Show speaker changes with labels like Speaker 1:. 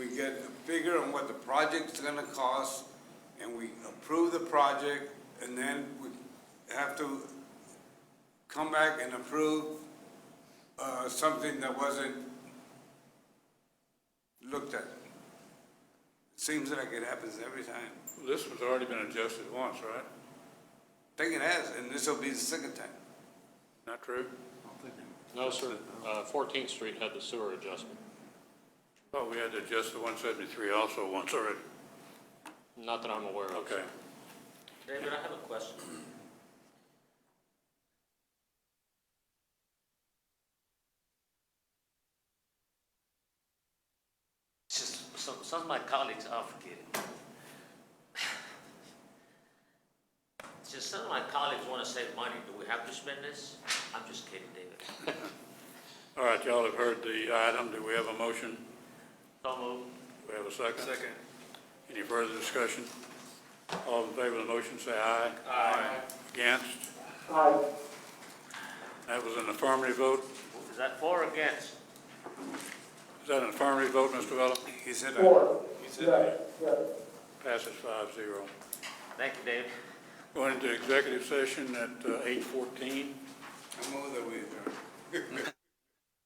Speaker 1: get a figure on what the project's gonna cost, and we approve the project, and then we have to come back and approve, uh, something that wasn't looked at. Seems like it happens every time.
Speaker 2: This has already been adjusted once, right?
Speaker 1: Think it has, and this'll be the second time.
Speaker 2: Not true?
Speaker 3: No, sir, Uh, 14th Street had the sewer adjustment,
Speaker 2: Oh, we had to adjust the one seventy-three also once already.
Speaker 3: not that I'm aware of.
Speaker 2: Okay.
Speaker 4: David, I have a question. Just, some, some of my colleagues are forgetting. Just some of my colleagues wanna save money, do we have to spend this? I'm just kidding, David.
Speaker 2: All right, y'all have heard the item. Do we have a motion?
Speaker 4: So moved.
Speaker 2: Do we have a second? Second. Any further discussion? All in favor of the motion, say aye. Aye. Against? Aye. That was an affirmative vote.
Speaker 4: Is that for or against?
Speaker 2: Is that an affirmative vote, Mr. Vella?
Speaker 1: He said,
Speaker 5: Four.
Speaker 1: he said.
Speaker 5: Right, right.
Speaker 2: Passes five zero.
Speaker 4: Thank you, David.
Speaker 2: Going into executive session at eight uh, fourteen.
Speaker 1: I move that we adjourn.